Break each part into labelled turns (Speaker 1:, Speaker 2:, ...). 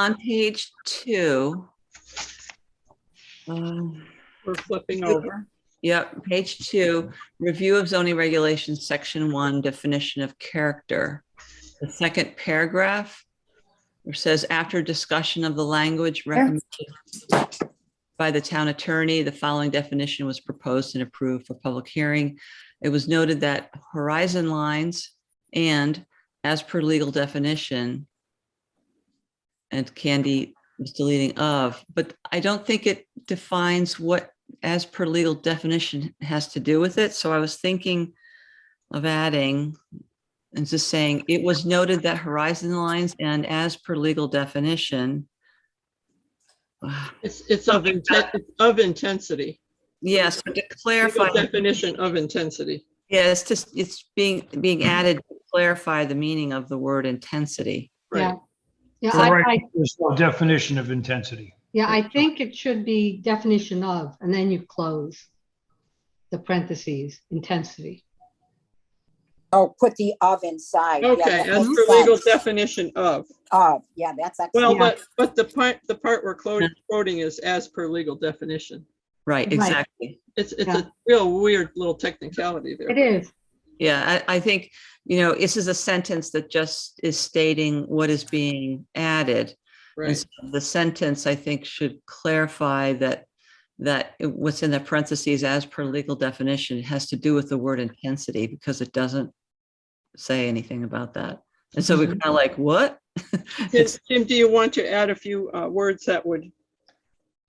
Speaker 1: on page two. um,
Speaker 2: We're flipping over.
Speaker 1: Yep, page two, review of zoning regulations, section one, definition of character. The second paragraph, which says after discussion of the language recommended by the town attorney, the following definition was proposed and approved for public hearing. It was noted that horizon lines and as per legal definition and Candy was deleting of, but I don't think it defines what as per legal definition has to do with it, so I was thinking of adding and just saying, it was noted that horizon lines and as per legal definition. Ah,
Speaker 2: It's, it's of, inten- it's of intensity.
Speaker 1: Yes, to
Speaker 2: Legal
Speaker 1: clarify,
Speaker 2: Definition of intensity.
Speaker 1: yes, just, it's being, being added to clarify the meaning of the word intensity.
Speaker 2: Right.
Speaker 3: Yeah, I, I,
Speaker 4: Correct, there's no definition of intensity.
Speaker 3: yeah, I think it should be definition of, and then you close the parentheses, intensity.
Speaker 5: Oh, put the of inside. Yeah,
Speaker 2: Okay,
Speaker 5: that
Speaker 2: as
Speaker 5: makes
Speaker 2: per legal
Speaker 5: sense.
Speaker 2: definition of.
Speaker 5: Of, Oh, yeah, that's
Speaker 2: Well,
Speaker 5: excellent.
Speaker 2: but, but the part, the part we're quoting, quoting is as per legal definition.
Speaker 1: Right,
Speaker 3: Right.
Speaker 1: exactly.
Speaker 2: It's, it's
Speaker 3: Yeah.
Speaker 2: a real weird little technicality there.
Speaker 3: It is,
Speaker 1: Yeah, I, I think, you know, this is a sentence that just is stating what is being added. And
Speaker 2: Right,
Speaker 1: so The sentence, I think, should clarify that, that it- what's in the parentheses as per legal definition has to do with the word intensity because it doesn't say anything about that. And so we're
Speaker 2: Mm-hmm.
Speaker 1: kind of like, what?
Speaker 2: Tim,
Speaker 1: It's-
Speaker 2: Tim, do you want to add a few uh, words that would,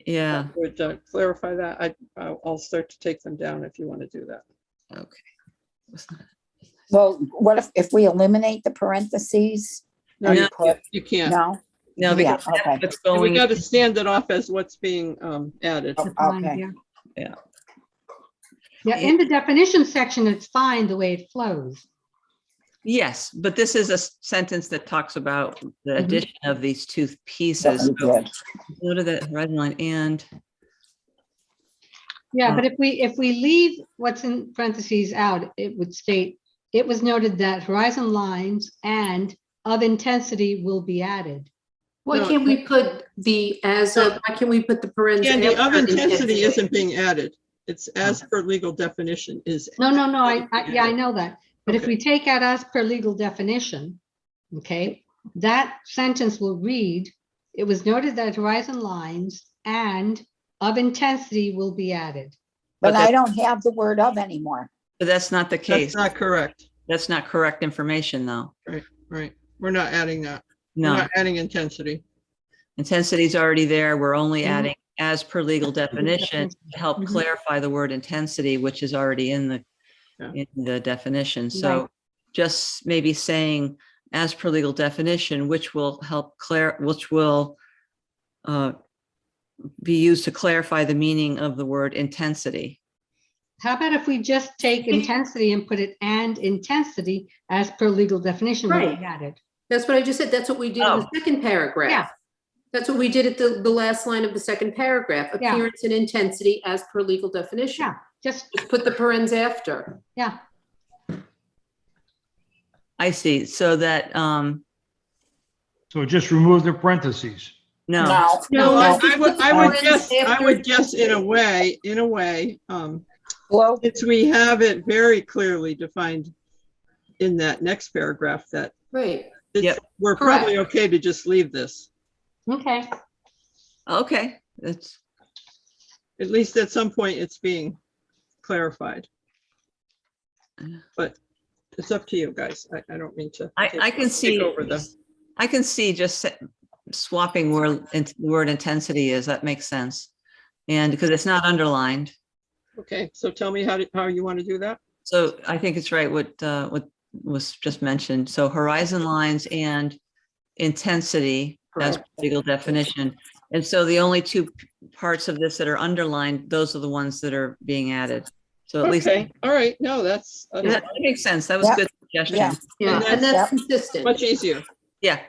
Speaker 1: Yeah,
Speaker 2: that would uh, clarify that? I, I'll I'll start to take them down if you want to do that.
Speaker 1: okay.
Speaker 5: Well, what if, if we eliminate the parentheses?
Speaker 2: No,
Speaker 5: you
Speaker 2: you
Speaker 5: put-
Speaker 2: you can't.
Speaker 5: No?
Speaker 1: No,
Speaker 5: Yeah,
Speaker 1: because that's
Speaker 5: okay.
Speaker 1: what's
Speaker 2: And We
Speaker 1: going,
Speaker 2: got to stand it off as what's being um, added.
Speaker 5: Oh,
Speaker 3: defined,
Speaker 5: okay.
Speaker 3: yeah.
Speaker 1: Yeah.
Speaker 3: Yeah, in the definition section, it's fine the way it flows.
Speaker 1: yes, but this is a s- sentence that talks about the
Speaker 2: Mm-hmm.
Speaker 3: Mhm.
Speaker 1: addition of these two pieces.
Speaker 5: That'd be good.
Speaker 1: Go to the red line and,
Speaker 3: Yeah, but if we, if we leave what's in parentheses out, it would state, it was noted that horizon lines and of intensity will be added.
Speaker 6: Why
Speaker 2: No.
Speaker 6: can't we put the as of, why can't we put the parentheses?
Speaker 2: And the of intensity isn't being added. It's as per legal definition is.
Speaker 3: No, no, no, I, I, yeah, I know that. But if
Speaker 2: Okay.
Speaker 3: we take out as per legal definition, okay, that sentence will read, it was noted that horizon lines and of intensity will be added.
Speaker 1: But
Speaker 5: But
Speaker 1: that-
Speaker 5: I don't have the word of anymore.
Speaker 1: but that's not the
Speaker 2: That's
Speaker 1: case.
Speaker 2: not correct,
Speaker 1: That's not correct information, though.
Speaker 2: right? We're not adding that. We're
Speaker 1: No.
Speaker 2: not adding intensity.
Speaker 1: Intensity is already there. We're only
Speaker 3: Mhm.
Speaker 1: adding as per legal definition to help
Speaker 3: Mhm.
Speaker 1: clarify the word intensity, which is already in the,
Speaker 2: Yeah.
Speaker 1: in the definition. So just maybe saying as per legal definition, which will help clear, which will uh, be used to clarify the meaning of the word intensity.
Speaker 3: How about if we just take intensity and put it and intensity as per legal definition will
Speaker 6: Right.
Speaker 3: be added?
Speaker 6: That's what I just said. That's what we did in
Speaker 1: Oh.
Speaker 6: the second
Speaker 3: Yeah.
Speaker 6: paragraph. That's what we did at the, the last line of the second paragraph,
Speaker 3: Yeah.
Speaker 6: appearance and intensity as per legal definition.
Speaker 3: Yeah. Just,
Speaker 6: Just Put the parens after.
Speaker 3: yeah,
Speaker 1: I see. So that, um,
Speaker 4: So just remove the parentheses.
Speaker 1: no,
Speaker 6: No,
Speaker 2: I
Speaker 5: No,
Speaker 6: that's-
Speaker 2: I would, I would
Speaker 6: Or
Speaker 2: guess, I would
Speaker 6: it's
Speaker 2: guess in a way, in a way, um,
Speaker 5: Well,
Speaker 2: since we have it very clearly defined in that next paragraph that
Speaker 6: Right.
Speaker 2: it's, we're probably okay to just leave this.
Speaker 3: okay.
Speaker 1: okay, that's,
Speaker 2: At least at some point, it's being clarified. But it's up to you guys. I, I don't mean to.
Speaker 1: I,
Speaker 2: take-
Speaker 1: I can
Speaker 2: take
Speaker 1: see,
Speaker 2: Over the.
Speaker 1: I can see just s- swapping where int- word intensity is, that makes sense. And because it's not underlined,
Speaker 2: Okay, so tell me how, to- how you want to do that?
Speaker 1: so I think it's right what, uh, what was just mentioned, so horizon lines and intensity as
Speaker 6: Correct.
Speaker 1: legal definition. And so the only two p- parts of this that are underlined, those are the ones that are being added. So at least,
Speaker 2: Okay,
Speaker 1: that
Speaker 2: all right, no, that's that's
Speaker 1: that makes sense, that was a
Speaker 5: Yeah.
Speaker 1: good suggestion,
Speaker 5: Yeah.
Speaker 6: Yeah,
Speaker 2: And
Speaker 6: and
Speaker 5: that's-
Speaker 6: that's consistent.
Speaker 2: much easier.
Speaker 1: yeah.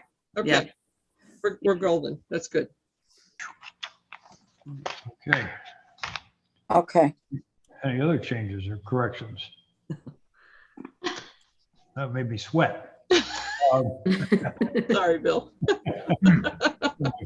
Speaker 1: Yeah.
Speaker 2: Okay. We're, we're golden. That's good.
Speaker 4: Okay,
Speaker 5: okay.
Speaker 4: any other changes or corrections? That made me sweat. Um,
Speaker 2: Sorry, Bill.